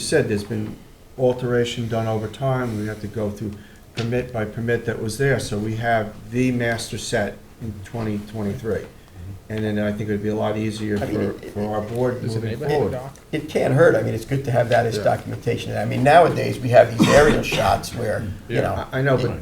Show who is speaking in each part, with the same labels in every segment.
Speaker 1: You said there's been alteration done over time, we have to go through permit by permit that was there, so we have the master set in 2023.
Speaker 2: Mm-hmm.
Speaker 1: And then I think it'd be a lot easier
Speaker 3: I mean,
Speaker 1: for,
Speaker 3: it-
Speaker 1: for our board
Speaker 2: Does it
Speaker 1: moving
Speaker 2: neighborhood
Speaker 1: forward.
Speaker 2: dock?
Speaker 3: It can't hurt, I mean, it's good to have that as
Speaker 1: Yeah.
Speaker 3: documentation. I mean, nowadays, we have these aerial shots where, you know,
Speaker 1: I I know, but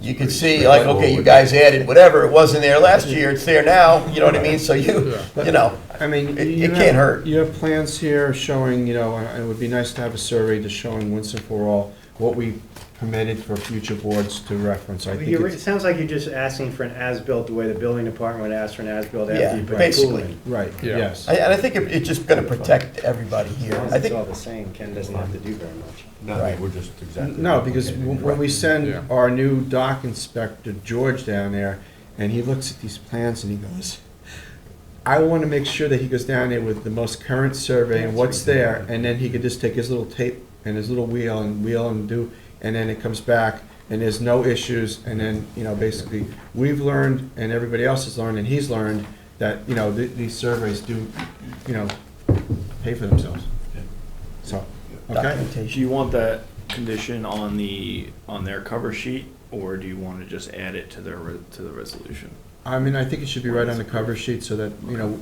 Speaker 3: you can see, like, okay, you guys added whatever, it wasn't there last year, it's there now, you know what I mean? So you, you know,
Speaker 1: I mean,
Speaker 3: It-
Speaker 1: you
Speaker 3: it
Speaker 1: have-
Speaker 3: can't hurt.
Speaker 1: You have plans here showing, you know, and it would be nice to have a survey to showing once and for all what we permitted for future boards to reference. I think
Speaker 4: You're- It
Speaker 1: it's,
Speaker 4: sounds like you're just asking for an as-built, the way the building department would ask for an as-built
Speaker 3: Yeah,
Speaker 4: after you put the pool
Speaker 3: basically.
Speaker 4: in.
Speaker 1: right,
Speaker 2: Yeah.
Speaker 1: yes.
Speaker 3: I- and I think it- it's just gonna protect everybody
Speaker 4: As
Speaker 3: here.
Speaker 4: long
Speaker 3: I
Speaker 4: as it's
Speaker 3: think,
Speaker 4: all the same, Ken doesn't have to do very much.
Speaker 3: Right.
Speaker 5: No, we're just exactly.
Speaker 1: No, because
Speaker 5: replicating it.
Speaker 1: when we send
Speaker 2: Yeah.
Speaker 1: our new dock inspector, George, down there, and he looks at these plans and he goes, I want to make sure that he goes down there with the most current survey and what's there, and then he could just take his little tape and his little wheel and wheel and do, and then it comes back, and there's no issues, and then, you know, basically, we've learned, and everybody else has learned, and he's learned, that, you know, th- these surveys do, you know, pay for themselves.
Speaker 5: Yeah.
Speaker 1: So, okay?
Speaker 6: Do
Speaker 3: documentation.
Speaker 6: you want that condition on the, on their cover sheet, or do you want to just add it to their, re- to the resolution?
Speaker 1: I mean, I think it should be right on the cover sheet so that, you know,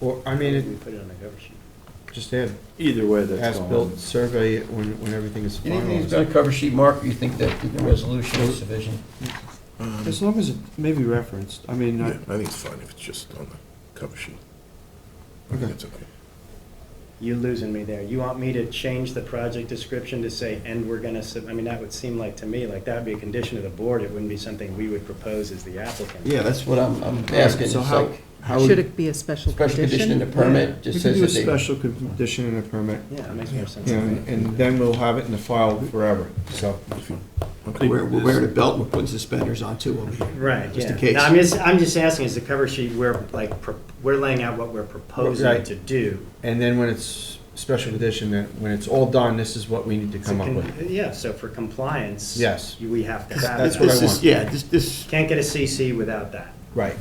Speaker 1: or, I mean,
Speaker 4: We
Speaker 1: it-
Speaker 4: put it on the cover sheet.
Speaker 1: just add
Speaker 6: Either way, that's going.
Speaker 1: as-built survey when, when everything is
Speaker 3: Anything that's
Speaker 1: finalized.
Speaker 3: gonna cover sheet mark, you think that the resolution is sufficient?
Speaker 1: As long as it may be referenced, I mean,
Speaker 7: Yeah,
Speaker 1: I-
Speaker 7: I think it's fine if it's just on the cover sheet. I think
Speaker 1: Okay.
Speaker 7: that's okay.
Speaker 4: You're losing me there. You want me to change the project description to say, and we're gonna, sub-" I mean, that would seem like, to me, like that would be a condition of the board. It wouldn't be something we would propose as the applicant.
Speaker 3: Yeah, that's what I'm, I'm asking. It's
Speaker 1: so how,
Speaker 3: like,
Speaker 1: how
Speaker 8: Should
Speaker 1: would?
Speaker 8: it be a special
Speaker 3: special condition in the
Speaker 8: condition?
Speaker 3: permit,
Speaker 1: We could
Speaker 3: just says
Speaker 1: do a
Speaker 3: that they,
Speaker 1: special condition in a permit,
Speaker 4: Yeah, that makes more sense.
Speaker 1: you know, and and then we'll have it in the file forever, so.
Speaker 3: we're we're wearing a belt, and we're putting suspenders on too over here.
Speaker 4: Right,
Speaker 3: Just
Speaker 4: yeah.
Speaker 3: in case.
Speaker 4: No, I'm just, I'm just asking, is the cover sheet, we're like, pro- we're laying out what we're proposing
Speaker 1: Right.
Speaker 4: to do.
Speaker 1: And then when it's special condition, then when it's all done, this is what we need to
Speaker 4: So
Speaker 1: come up
Speaker 4: con-
Speaker 1: with.
Speaker 4: Yeah, so for compliance.
Speaker 1: Yes.
Speaker 4: you- We have to have.
Speaker 1: That's
Speaker 4: that.
Speaker 1: what I
Speaker 3: This is-
Speaker 1: want.
Speaker 3: Yeah, this, this,
Speaker 4: Can't get a CC without that.
Speaker 1: Right,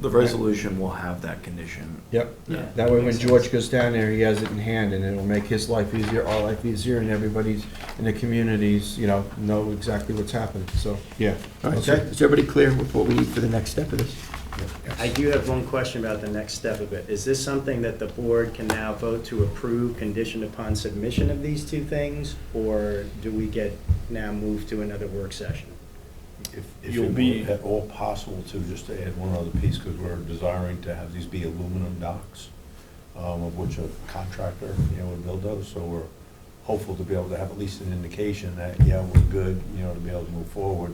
Speaker 6: The resolution will have that condition.
Speaker 1: yep.
Speaker 6: Yeah.
Speaker 1: That way, when George goes down there, he has it in hand, and it'll make his life easier, our life easier, and everybody's in the communities, you know, know exactly what's happening, so, yeah.
Speaker 3: all right, so
Speaker 1: Okay?
Speaker 3: is everybody clear with what we need for the next step of this?
Speaker 4: I do have one question about the next step of it. Is this something that the board can now vote to approve conditioned upon submission of these two things? Or do we get now moved to another work session?
Speaker 5: If- If
Speaker 6: You'll
Speaker 5: it
Speaker 6: be-
Speaker 5: were at all possible to, just to add one other piece, because we're desiring to have these be aluminum docks, um, of which a contractor, you know, would build those, so we're hopeful to be able to have at least an indication that, yeah, we're good, you know, to be able to move forward,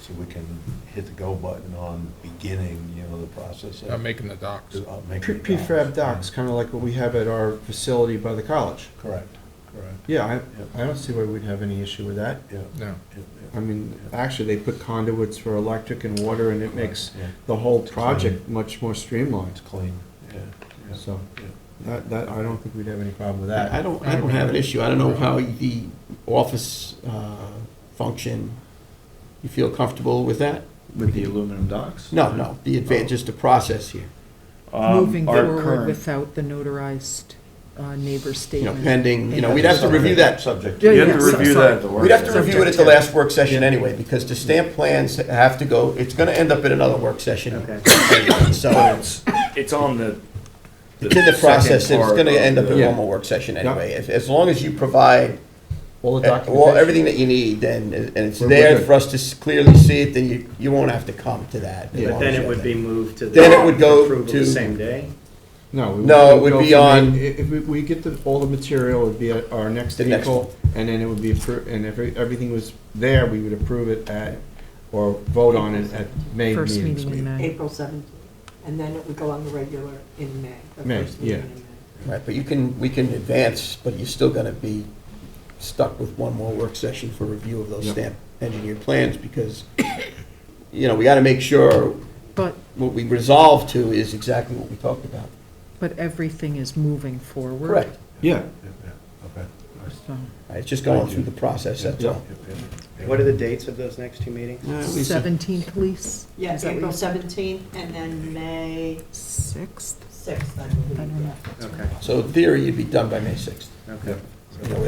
Speaker 5: so we can hit the go button on beginning, you know, the process
Speaker 2: I'm
Speaker 5: of
Speaker 2: making the docks.
Speaker 5: of making
Speaker 1: Pre-
Speaker 5: the
Speaker 1: Prefab docks, kind of like what we have at our facility by the college.
Speaker 5: Correct, correct,
Speaker 1: Yeah, I, I don't see why we'd have any issue with that.
Speaker 5: yeah.
Speaker 2: No.
Speaker 5: yeah,
Speaker 1: I mean, actually, they put conduits for electric and water, and it makes
Speaker 5: yeah.
Speaker 1: the whole project much more streamlined,
Speaker 5: It's clean, yeah, yeah.
Speaker 1: so.
Speaker 5: yeah.
Speaker 1: That, that, I don't think we'd have any problem with that.
Speaker 3: I don't, I don't have an issue. I don't know how the office uh, function, you feel comfortable with that?
Speaker 6: With the aluminum docks?
Speaker 3: No, no, the advan, just the process here.
Speaker 6: Um,
Speaker 8: Moving
Speaker 6: our
Speaker 8: forward
Speaker 6: current-
Speaker 8: without the notarized uh,
Speaker 3: You
Speaker 8: neighbor
Speaker 3: know,
Speaker 8: statement.
Speaker 3: pending, you know,
Speaker 8: And-
Speaker 3: we'd have to review that.
Speaker 5: Subject.
Speaker 8: Yeah,
Speaker 6: You have to
Speaker 8: yeah, so-
Speaker 6: review
Speaker 8: sorry.
Speaker 6: that at the work.
Speaker 3: We'd have to
Speaker 6: session.
Speaker 3: review it at the last work session anyway, because the stamp plans have to go, it's gonna end up in another work session.
Speaker 4: Okay.
Speaker 3: So
Speaker 6: It's on the.
Speaker 3: it's in the process, and
Speaker 6: second
Speaker 3: it's
Speaker 6: part
Speaker 3: gonna
Speaker 6: of
Speaker 3: end up in
Speaker 6: the-
Speaker 3: one more work session anyway. If- As long as you provide
Speaker 1: All the
Speaker 3: Eh, Well,
Speaker 1: documentation.
Speaker 3: Uh, everything that you need, then, uh, and it's
Speaker 1: We're-
Speaker 3: there
Speaker 1: we're good.
Speaker 3: for us to s- clearly see it, then you, you won't have to come to that.
Speaker 1: Yeah.
Speaker 4: But then it would be moved to the.
Speaker 3: Then it would go
Speaker 4: approval
Speaker 3: to-
Speaker 4: the same day?
Speaker 1: No. we
Speaker 3: No,
Speaker 1: we'll
Speaker 3: it would
Speaker 1: go
Speaker 3: be
Speaker 1: from
Speaker 3: on-
Speaker 1: the- i- If we, we get the, all the material, it would be at our next
Speaker 3: The next
Speaker 1: vehicle, and then it would be, appro- and if it- everything was there, we would approve it at, or vote on it at May
Speaker 8: First
Speaker 1: meetings.
Speaker 8: meeting in May.
Speaker 9: April 17th, and then it would go on the regular in May. the
Speaker 1: May,
Speaker 9: first meeting
Speaker 1: yeah.
Speaker 9: in May.
Speaker 3: Right, but you can, we can advance, but you're still gonna be stuck with one more work session for review of those
Speaker 1: Yep.
Speaker 3: stamp engineered plans, because, you know, we gotta make sure
Speaker 8: But,
Speaker 3: what we resolve to is exactly what we talked about.
Speaker 8: but everything is moving forward.
Speaker 3: Correct.
Speaker 1: Yeah,
Speaker 5: Yeah, yeah, okay.
Speaker 8: So
Speaker 3: Right, It's just going through the process, that's all.
Speaker 5: Yeah, yeah, yeah.
Speaker 4: What are the dates of those next two meetings?
Speaker 3: Uh, Lisa?
Speaker 8: 17th lease?
Speaker 9: Yeah,
Speaker 8: Is that what
Speaker 9: April
Speaker 8: you-
Speaker 9: 17th, and then May
Speaker 8: 6th?
Speaker 9: 6th, I
Speaker 8: I
Speaker 9: believe,
Speaker 8: don't know.
Speaker 9: yeah.
Speaker 4: Okay,
Speaker 3: So in theory, you'd be done by May sixth.
Speaker 4: okay.
Speaker 3: you know,